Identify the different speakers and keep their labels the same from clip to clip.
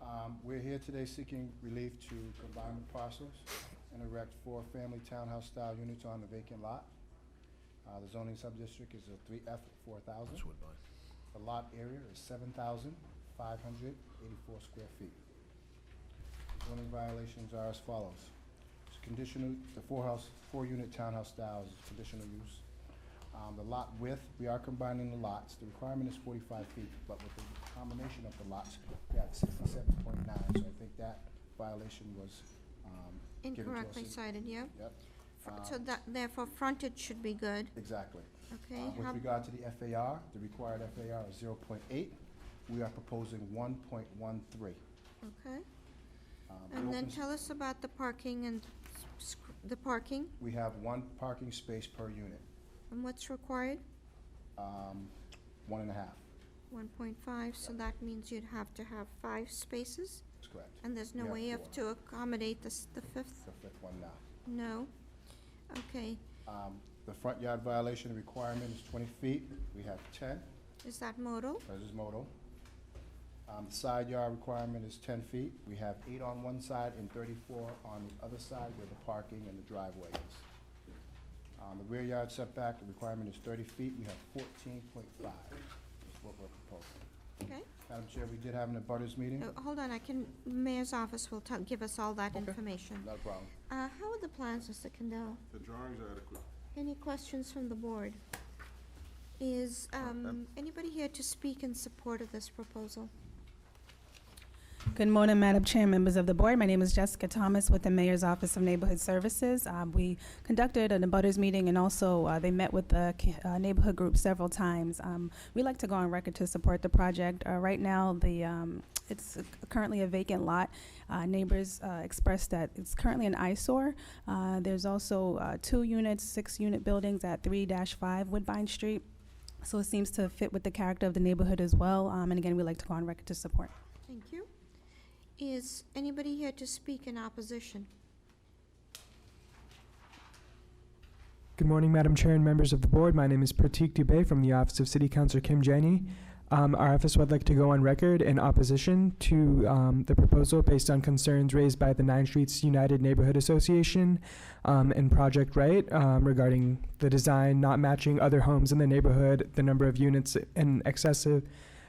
Speaker 1: Um, We're here today seeking relief to combine parcels and erect four family townhouse-style units on the vacant lot. Uh, The zoning sub-district is a 3F 4,000. The lot area is 7,584 square feet. The Zoning violations are as follows. It's conditional, the four-house, four-unit townhouse style is conditional use. Um, The lot width, we are combining the lots. The requirement is 45 feet, but with the combination of the lots, we have 67.9, so I think that violation was um, given to us.
Speaker 2: Incorrectly cited, yep.
Speaker 1: Yep, Uh,
Speaker 2: Fr- So that, therefore, frontage should be good,
Speaker 1: exactly.
Speaker 2: okay?
Speaker 1: Uh, With
Speaker 2: How-
Speaker 1: regard to the FAR, the required FAR is 0.8. We are proposing 1.13. Um,
Speaker 2: Okay,
Speaker 1: the
Speaker 2: and
Speaker 1: open
Speaker 2: then
Speaker 1: s-
Speaker 2: tell us about the parking and s- sc- the parking,
Speaker 1: We have one parking space per unit,
Speaker 2: and what's required?
Speaker 1: um, one and a half,
Speaker 2: One point five, so that means you'd have to have five spaces,
Speaker 1: that's correct.
Speaker 2: and there's no
Speaker 1: We have
Speaker 2: way of
Speaker 1: four.
Speaker 2: to accommodate the, s- the fifth?
Speaker 1: The fifth one now.
Speaker 2: No? Okay,
Speaker 1: Um, The front yard violation requirement is 20 feet. We have 10,
Speaker 2: is that modal?
Speaker 1: This is modal. Um, The Side yard requirement is 10 feet. We have eight on one side and 34 on the other side where the parking and the driveway is. Um, The rear yard setback, the requirement is 30 feet. We have 14.5 is what we're proposing.
Speaker 2: Okay,
Speaker 1: Madam Chair, we did have an abutters meeting.
Speaker 3: Oh.
Speaker 2: Uh, hold on, I can, mayor's office will tell, give us all that information.
Speaker 1: Not a problem.
Speaker 2: Uh, how are the plans, Mr. Kendall?
Speaker 4: The drawings are adequate.
Speaker 2: Any questions from the board? Is um, anybody here to speak in support of this proposal?
Speaker 5: Good morning, Madam Chair, members of the board. My name is Jessica Thomas with the Mayor's Office of Neighborhood Services. Um, We conducted an abutters meeting, and also uh, they met with the ca- uh, neighborhood group several times. Um, We like to go on record to support the project. Uh, Right now, the, um, it's currently a vacant lot. Uh, Neighbors uh, expressed that it's currently an eyesore. Uh, There's also uh, two units, six-unit buildings at 3-5 Woodbine Street, so it seems to fit with the character of the neighborhood as well. Um, And again, we like to go on record to support.
Speaker 2: Thank you. Is anybody here to speak in opposition?
Speaker 6: Good morning, Madam Chair and members of the board. My name is Pratik Dubey from the Office of City Councilor Kim Janey. Um, our office would like to go on record in opposition to um, the proposal based on concerns raised by the Nine Streets United Neighborhood Association um, and Project Right um, regarding the design not matching other homes in the neighborhood, the number of units and excessive.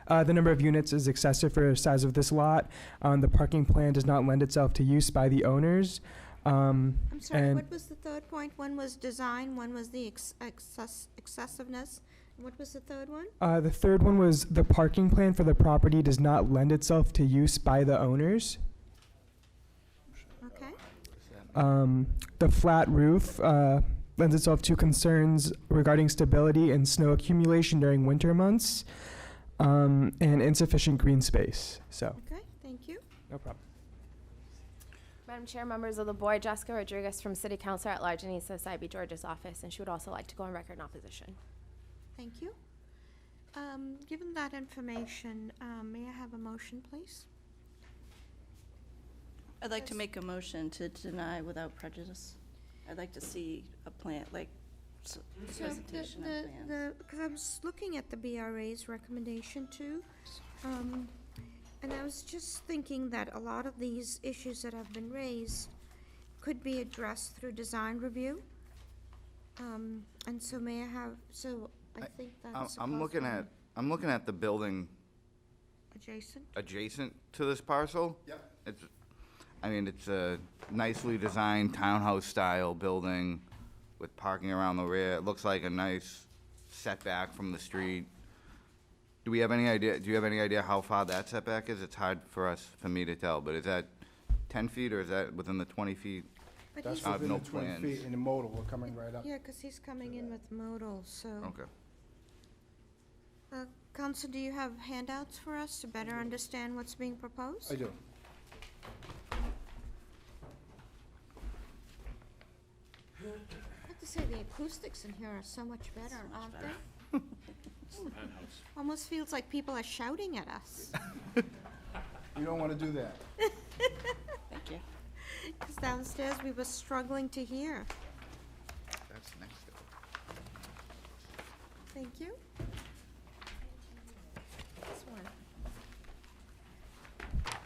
Speaker 6: Uh, the number of units is excessive for the size of this lot. Um, the parking plan does not lend itself to use by the owners. Um,
Speaker 2: I'm sorry,
Speaker 6: And-
Speaker 2: what was the third point? One was design, one was the ex- excess- excessiveness. and What was the third one?
Speaker 6: Uh, the third one was the parking plan for the property does not lend itself to use by the owners.
Speaker 2: Okay,
Speaker 6: Um, the flat roof uh, lends itself to concerns regarding stability and snow accumulation during winter months, um, and insufficient green space. So,
Speaker 2: okay, thank you.
Speaker 6: no problem.
Speaker 7: Madam Chair, members of the board, Jessica Rodriguez from City Council at Large in East Side B. George's office, and she would also like to go on record in opposition.
Speaker 2: Thank you. Um, Given that information, um, may I have a motion, please?
Speaker 8: I'd like to make a motion to deny without prejudice. I'd like to see a plant, like, s-
Speaker 2: So
Speaker 8: presentation of plans.
Speaker 2: Because I was looking at the BRA's recommendation too, um, and I was just thinking that a lot of these issues that have been raised could be addressed through design review. Um, And so may I have, so I
Speaker 3: I-
Speaker 2: think
Speaker 3: I'm-
Speaker 2: that's. a
Speaker 3: I'm looking at,
Speaker 2: possible
Speaker 3: I'm looking at the building
Speaker 2: Adjacent,
Speaker 3: adjacent to this parcel.
Speaker 1: Yep.
Speaker 3: It's, I mean, it's a nicely designed townhouse-style building with parking around the rear. It looks like a nice setback from the street. Do we have any idea, do you have any idea how far that setback is? It's hard for us, for me to tell, but is that 10 feet or is that within the 20 feet?
Speaker 2: but
Speaker 1: That's
Speaker 2: he's,
Speaker 3: I have
Speaker 1: within the
Speaker 3: no
Speaker 1: 20
Speaker 3: plans.
Speaker 1: feet in the modal, we're coming right up.
Speaker 2: yeah, because he's coming in with modal, so.
Speaker 3: Okay.
Speaker 2: Uh, Counsel, do you have handouts for us to better understand what's being proposed?
Speaker 1: I do.
Speaker 2: I have to say, the acoustics in here are so much better, aren't they? Hmm. Almost feels like people are shouting at us,
Speaker 1: You don't want to do that.
Speaker 8: Thank you.
Speaker 2: because downstairs we were struggling to hear.
Speaker 3: That's next.
Speaker 2: Thank you.